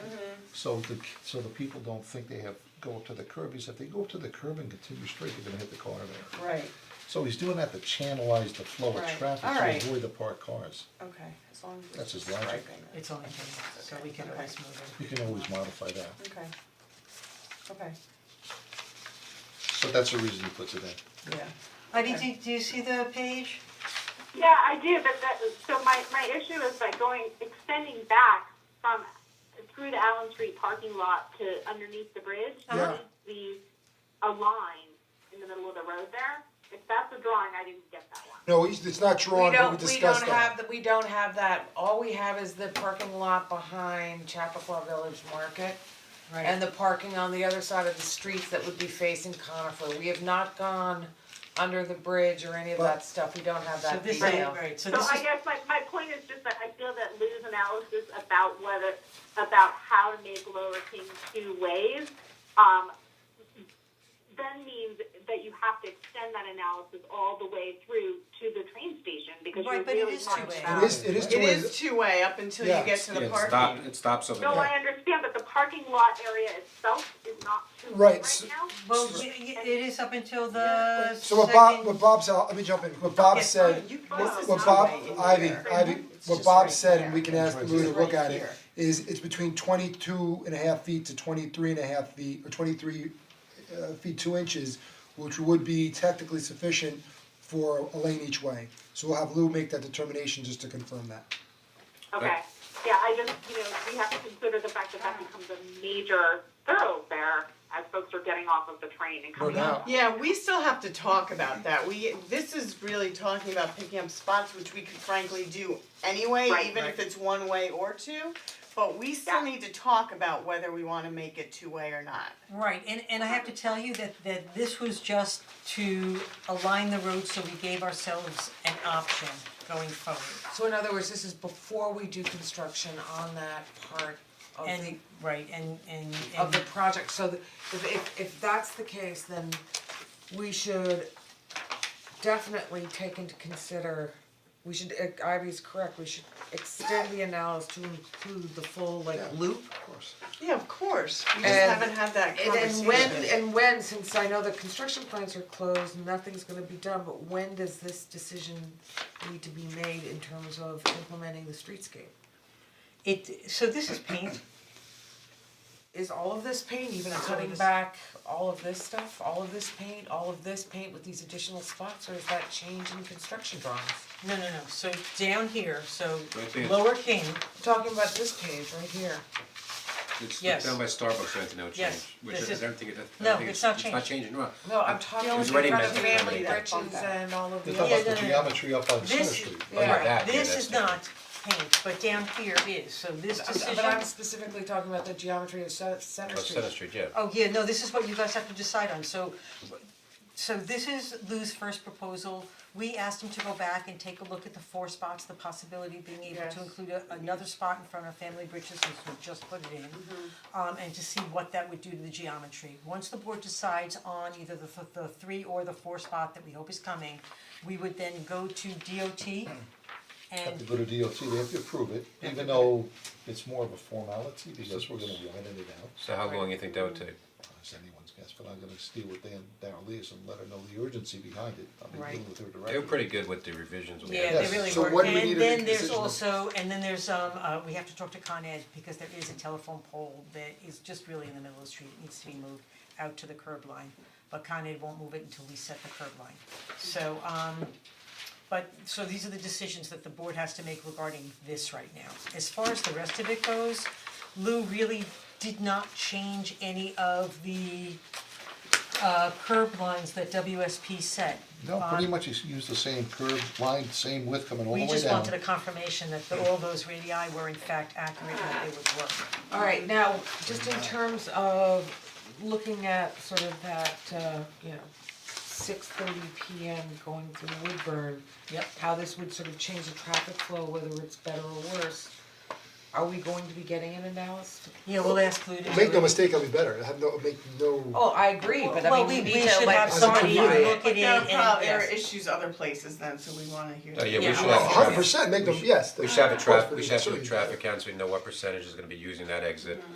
So the, so the people don't think they have, go up to the curb, because if they go up to the curb and continue straight, they're gonna hit the car there. Right, So he's doing that to channelize the flow of Right, traffic, to alright. avoid the parked cars. okay, as long as That's it's his logic. striping it. It's only ten, so we can always move it. You can always modify that, Okay, okay, so that's the reason he puts it in. yeah, Heidi, do, do you see the page? Yeah, I do, but that, so my, my issue is like going, extending back from, through the Allen Street parking lot to underneath the bridge. Yeah. The, a line in the middle of the road there, if that's a drawing, I didn't get that one. No, he's, it's not drawn, but we We don't, we don't discussed that. have, the- we don't have that, all we have is the parking lot behind Chappaqua Village Market. And the parking on the other side of the streets that would be facing Conifer, we have not gone under the bridge or any of that stuff, we don't have So that this is, detail. right, so So this I is, guess my, my point is just that I feel that Lou's analysis about whether, about how to make Lower King two ways, um, then means that you have to extend that analysis all the way through to the train station, because you're Right, but it really is talking two-way. about. It is, it is two It ways. is two-way up until you Yeah. get to the Yeah, parking. it stops, it stops over No, there. I understand, but the parking lot area itself is not two Right, way right so- now. well, we- y- it is up until the So what Bob, second- what Bob said, let me jump in, what Bob Yeah, said, you- this what is what not Bob, right in Ivy, here. Ivy, what just Bob right said, and there. we can ask Lou to It's look right at it, here. is it's between twenty-two and a half feet to twenty-three and a half feet, or twenty-three uh, feet two inches, which would be technically sufficient for a lane each way. So we'll have Lou make that determination just to confirm that. Okay, yeah, I just, you know, we have to consider the fact that that becomes a major thoroughfare as folks are getting off of the train and coming doubt. out. Yeah, we still have to talk about that. We, this is really talking about picking up spots, which we could frankly do anyway, Right. even if it's one way or two. But we still Yeah. need to talk about whether we wanna make it two-way or not. Right, and and I have to tell you that that this was just to align the road, so we gave ourselves an option going forward. So in other words, this is before we do construction on that part of the And, right, and and of and the project, so that if if if that's the case, then we should definitely take into consider, we should, uh, Ivy's correct, we should extend the analysis to include the full like loop. Of course. Yeah, of course. We just And- haven't had that And conversation. then when, and when, since I know the construction plans are closed, nothing's gonna be done, but when does this decision need to be made in terms of implementing the streetscape? it, so this is paint, Is all of this paint, even That's all cutting this- back all of this stuff, all of this paint, all of this paint with these additional spots, or is that change in construction drawings? no, no, no, so down here, so Right there. lower king, I'm Talking about this page right here, It's Yes. down by Starbucks, right, no change, Yes, which this I is- don't think it, I no, don't think it's it's, not it's not changing, no. no, I'm talking It in was already front of meant to be family done. britches and all of the. They're talking about Yeah, the no, no, no. geometry up on Center this, Street. yeah, right, that, yeah, this that's is not paint, but down here is, so this decision. But I'm specifically talking about the geometry of Center Street. Oh, Center Street, yeah. Oh, yeah, no, this is what you guys have to decide on, so, so this is Lou's first proposal. We asked him to go back and take a look at the four spots, the possibility of being able to Yes. include a- another spot in front of Family Bridges, since we just put it in. Um, and to see what that would do to the geometry. Once the board decides on either the, th- the three or the four spot that we hope is coming, we would then go to DOT Have to and, go to DOT, they have to approve it, even though it's more of a formality, because we're gonna line it out. So how long you think that would take? It's anyone's guess, but I'm gonna steal with Dan, Darrell Lees and let her know the urgency behind it, I'll be dealing Right. with her directly. They were pretty good with the revisions when we had. yeah, Yes, they really so were. what do we need to And make a then there's decision on? also, and then there's, um, uh, we have to talk to Con Ed, because there is a telephone pole that is just really in the middle of the street, It needs to be moved out to the curb line. But Con Ed won't move it until we set the curb line. So, um, but, so these are the decisions that the board has to make regarding this right now. As far as the rest of it goes, Lou really did not change any of the uh curb lines that WSP set. No, pretty Um, much he's used the same curve line, same width coming all the way we down. just wanted a confirmation that the- all those radii were in fact accurate and that they would work. Alright, now, just in terms of looking at sort of that, uh, you know, six thirty P M going through Woodburn. Yep. How this would sort of change the traffic flow, whether it's better or worse, are we going to be getting an analysis? Yeah, we'll ask Lou to do Make no it. mistake, I'll be better, I have no, make no. Oh, I agree, but I Well, mean, we you we need to should like have as a somebody community. look at But it there are and, prob- there are yes. issues other places then, so we wanna hear. Oh, yeah, we Yeah. should have. A hundred traffic- percent, make them, yes, We should have a of course, traffic, but we should it's have a certainly- traffic count, so we know what percentage is gonna be using that exit.